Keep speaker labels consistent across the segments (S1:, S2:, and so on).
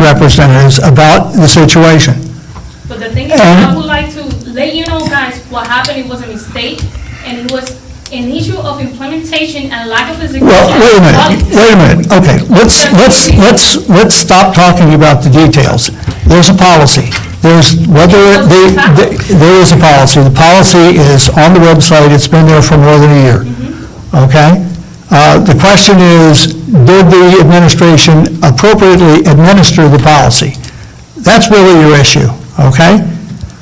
S1: representatives about the situation.
S2: But the thing is, I would like to let you know guys, what happened, it was a mistake, and it was an issue of implementation and lack of execution.
S1: Well, wait a minute, wait a minute, okay, let's, let's, let's, let's stop talking about the details. There's a policy, there's, whether, they- they- there is a policy, the policy is on the website, it's been there for more than a year, okay? Uh, The question is, did the administration appropriately administer the policy? That's really your issue, okay?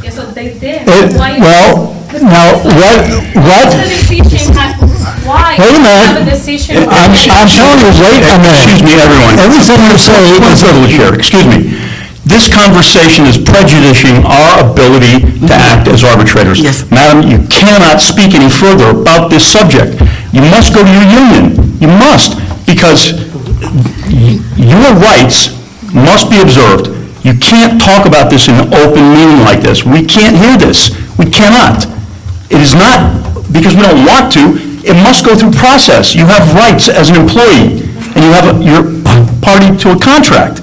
S2: Yeah, so they did.
S1: It-
S2: Why-
S1: well, now, what- what-
S2: What's the decision, had- why?
S1: Wait a minute.
S2: Have a decision.
S1: I'm, I'm telling you, wait a minute.
S3: Excuse me, everyone.
S1: Everything you say
S3: Just one
S1: is
S3: second, Chair, excuse me. This conversation is prejudicing our ability to
S1: Mm-hmm.
S3: act as arbitrators.
S4: Yes.
S3: Madam, you cannot speak any further about this subject. You must go to your union. You must, because y- your rights must be observed. You can't talk about this in an open meeting like this. We can't hear this. We cannot. It is not, because we don't want to, it must go through process. You have rights as an employee, and you have, a- you're party to a contract.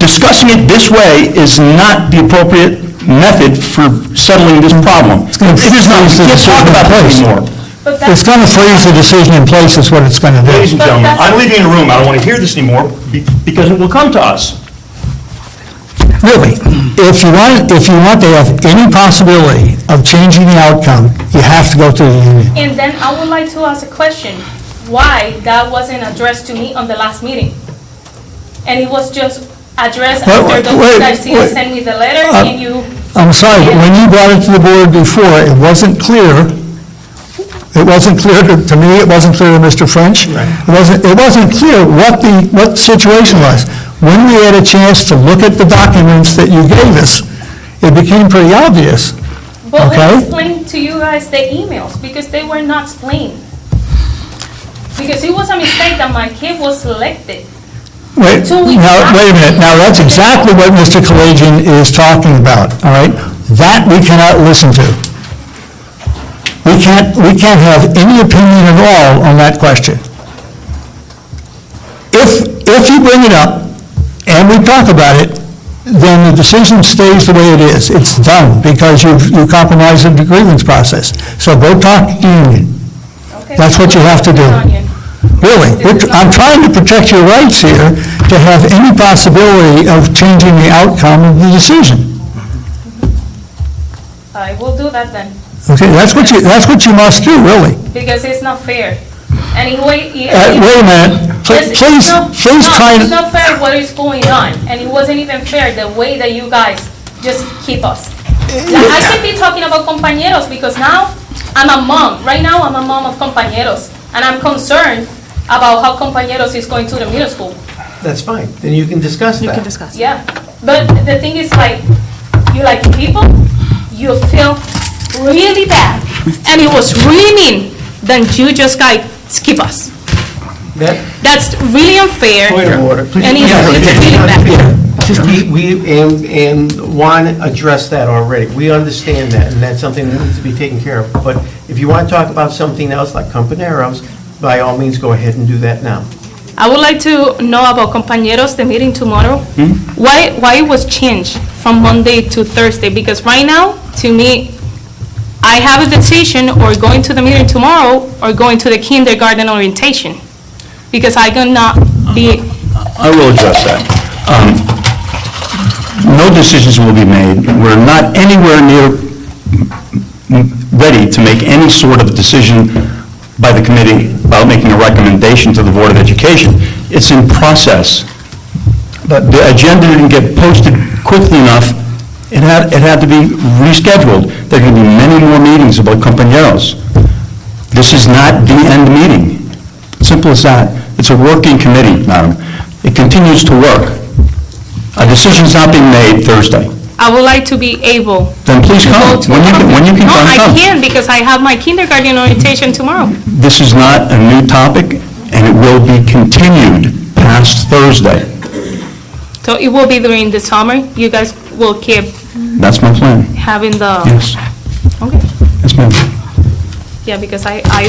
S3: Discussing it this way is not the appropriate method for settling this problem.
S1: gonna
S3: It is not,
S1: freeze the
S3: we
S1: decision
S3: can't talk about
S1: in place.
S3: this anymore.
S2: But that's-
S1: It's going to freeze the decision in place is what it's going to do.
S3: Ladies and
S2: But
S3: gentlemen,
S2: that's-
S3: I'm leaving the room, I don't want to hear this anymore, be- because it will come to us.
S1: Really, if you want, if you want to have any possibility of changing the outcome, you have to go through the union.
S2: And then I would like to ask a question, why that wasn't addressed to me on the last meeting? And it was just addressed
S1: Wait,
S2: after
S1: wait,
S2: Dr. Garcia
S1: wait.
S2: sent me the letter
S1: Uh,
S2: and you,
S1: I'm sorry, but when you brought it to the board before, it wasn't clear, it wasn't clear to to me, it wasn't clear to Mr. French. It wasn't, it wasn't clear what the, what the situation was. When we had a chance to look at the documents that you gave us, it became pretty obvious.
S2: but
S1: Okay.
S2: we explained to you guys the emails because they were not explained. Because it was a mistake that my kid was selected.
S1: Wait,
S2: So we
S1: now,
S2: have
S1: wait a minute,
S2: to-
S1: now, that's exactly what Mr. Kalajian is talking about, all right? That we cannot listen to. We can't, we can't have any opinion at all on that question. If, if you bring it up and we talk about it, then the decision stays the way it is. It's done because you've, you compromised the grievance process. So go talk to the union.
S2: Okay,
S1: That's what you have to do.
S2: Sonia.
S1: Really, we're tr- I'm trying to protect your rights here to have any possibility of changing the outcome of the decision.
S2: I will do that then,
S1: Okay, that's what you, that's what you must do, really.
S2: because it's not fair. Anyway, it-
S1: Uh, Wait a minute, Pl-
S2: Yes,
S1: please,
S2: no,
S1: please
S2: no,
S1: try,
S2: It's
S1: and-
S2: not fair what is going on, and it wasn't even fair the way that you guys just keep us. Like, I should be talking about compañeros because now I'm a mom. Right now, I'm a mom of compañeros, and I'm concerned about how compañeros is going to the middle school.
S5: That's fine, then you can discuss that.
S2: Yeah, but the thing is like, you like people, you feel really bad, and it was really mean. Then you just like skip us.
S5: That,
S2: That's really unfair.
S5: point of order, please.
S2: And it's it's really bad.
S5: We, we, and, and Juan addressed that already, we understand that, and that's something that needs to be taken care of. But if you want to talk about something else like Companeros, by all means, go ahead and do that now.
S2: I would like to know about compañeros, the meeting tomorrow.
S3: Hmm?
S2: Why, why it was changed from Monday to Thursday? Because right now, to me, I have a decision or going to the meeting tomorrow or going to the kindergarten orientation. Because I cannot be,
S3: I will address that. Um, No decisions will be made. We're not anywhere near m- ready to make any sort of decision by the committee about making a recommendation to the Board of Education. It's in process. But the agenda didn't get posted quickly enough. It had, it had to be rescheduled. There are going to be many more meetings about compañeros. This is not the end meeting. Simple as that. It's a working committee, madam. It continues to work. A decision's not being made Thursday.
S2: I would like to be able.
S3: Then please
S2: to
S3: come.
S2: go to
S3: When you can- when you can
S2: No,
S3: come,
S2: I
S3: come.
S2: can't because I have my kindergarten orientation tomorrow.
S3: This is not a new topic, and it will be continued past Thursday.
S2: So it will be during the summer. You guys will keep
S3: That's my plan.
S2: having the.
S3: Yes.
S2: Okay.
S3: Yes, ma'am.
S2: Yeah, because I, I,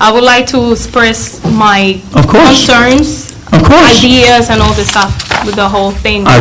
S2: I would like to express my
S3: Of course.
S2: concerns,
S3: Of course.
S2: ideas, and all this stuff. with the whole thing.
S3: I